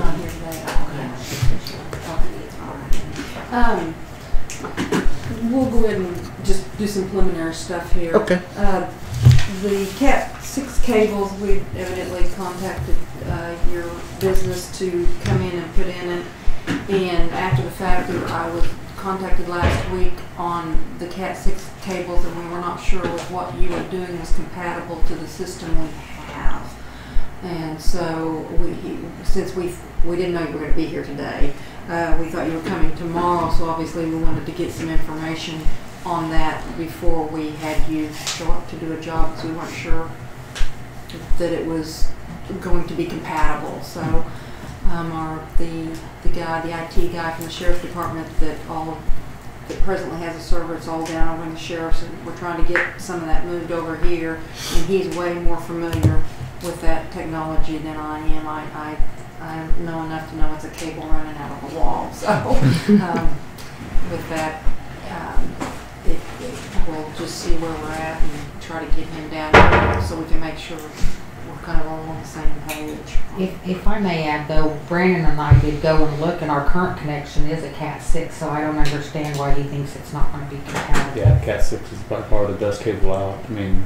Um, Um, we'll go ahead and just do some preliminary stuff here. Okay. Uh, the Cat six cables, we evidently contacted, uh, your business to come in and put in it. And after the fact, we- I was contacted last week on the Cat six cables and we were not sure if what you were doing was compatible to the system we have. And so we, since we, we didn't know you were gonna be here today, uh, we thought you were coming tomorrow, so obviously we wanted to get some information on that before we had you show up to do a job because we weren't sure that it was going to be compatible. So, um, our, the, the guy, the IT guy from the sheriff's department that all, that presently has a server, it's all down over in the sheriff's, and we're trying to get some of that moved over here. And he's way more familiar with that technology than I am. I, I, I know enough to know it's a cable running out of a wall, so, um, with that, um, it, it, we'll just see where we're at and try to get him down here so we can make sure we're kind of all on the same page. If, if I may add though, Brandon and I did go and look and our current connection is a cat six, so I don't understand why he thinks it's not gonna be compatible. Yeah, Cat six is by far the best cable out. I mean,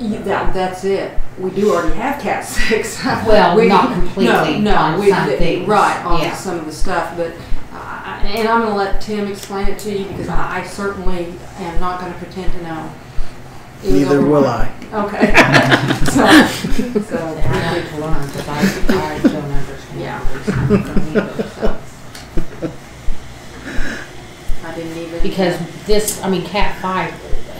Yeah, that, that's it. We do already have Cat Six. Well, We- not No, completely no, on we- some things. Right on Yeah. some of the stuff, but uh, and I'm going to let Tim explain it to you because I, I certainly am not going to pretend to know. It was Neither over- will I. Okay. so, so And I need to learn, cause I, I don't understand. Yeah. where he's coming from either, so. I didn't even Because this, I mean, cat five,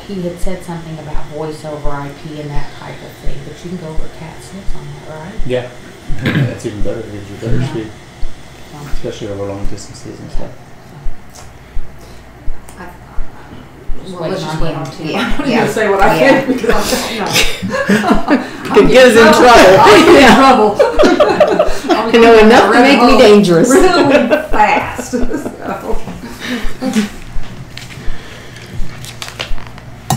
he had said something about voice over IP and that type of thing, but you can go over cat six on that, right? yeah, that's even better. It gives you better Yeah. speed, So- especially over long distances and stuff. I, Just well, let's waiting just on wait him. on Tim. Yeah, I'm not yeah, going to say what I yeah. can because I'm, no. Could get us in trouble. I'm in trouble. I'm I know going enough to down a make me rabbit hole dangerous. Really fast. So.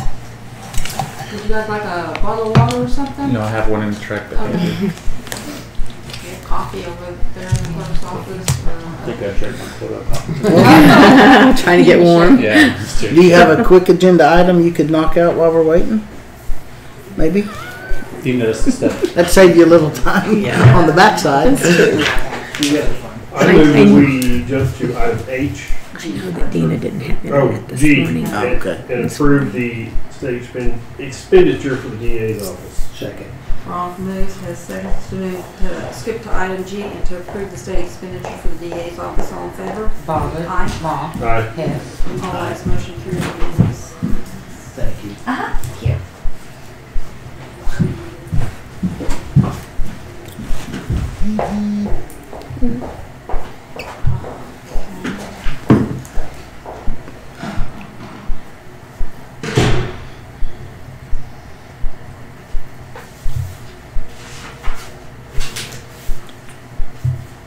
Would you guys like a bottle of water or something? No, I have one in the track, but Okay. I We have coffee over there in the clerk's office. think Or, I drank my quota of coffee. Trying to get warm. Yeah, it's too- Do you have a quick agenda item you could knock out while we're waiting? Maybe? you notice the stuff. That'd save you a little time on the backside. I move we jump to item H. I know that Dina didn't have Oh, internet this G. morning. Oh, and- okay. And approve the state expend- expenditure for the DA's office. Second. Ronk moves, has seconds to move to skip to item G and to approve the state expenditure for the DA's office. All in favor? Bobbit, Aye. Bob, Aye. Hess. All ayes, motion carries unanimous. Thank you.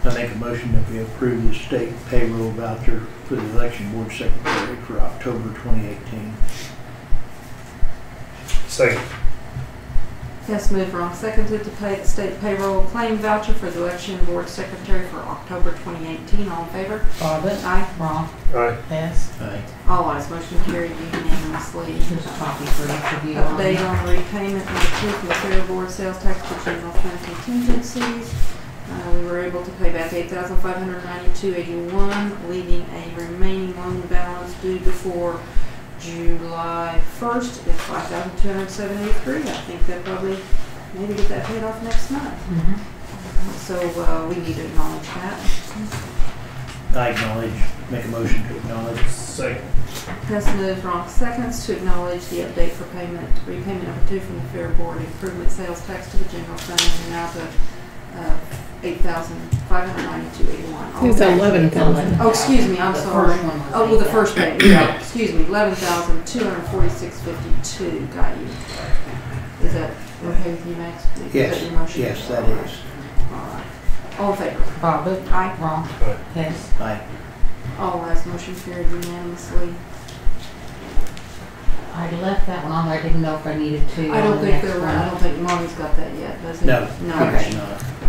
I make a motion that we approve the state payroll voucher for the election board secretary for October 2018. Second. Hess moved, Ronk seconded to pay the state payroll claim voucher for the election board secretary for October 2018. All in favor? Bobbit, Aye. Ron, Aye. Hess. Aye. All ayes, motion carried unanimously. Here's a copy for each of you. on Update on the repayment of the Chief Material Board sales tax for general fund contingencies. Uh, we were able to pay back eight thousand five hundred ninety-two eighty-one, leaving a remaining loan balance due before July first at five thousand two hundred seventy-three. I think they'll probably maybe get that paid off next month. Mhm. So, uh, we need to acknowledge that. I acknowledge, make a motion to acknowledge. Second. Hess moves, Ronk seconds to acknowledge the update for payment, repayment number two from the Fair Board Improvement Sales Tax to the general fund in the amount of, uh, eight thousand five hundred ninety-two eighty-one. It's eleven thousand. Oh, excuse me, I'm The sorry. first one was Oh, well, the eight first payment, yeah, excuse me, eleven thousand two hundred forty-six fifty-two, got you. Is that okay with you, Max? Is that Yes, your motion? yes, that is. All right. All in favor? Bobbit, Aye. Ron, Aye. Hess. Aye. All ayes, motion carried unanimously. I left that one on there, I didn't know if I needed to. I don't on the think next there were, one. I don't think Marty's got that yet, does he? No. No. It's not.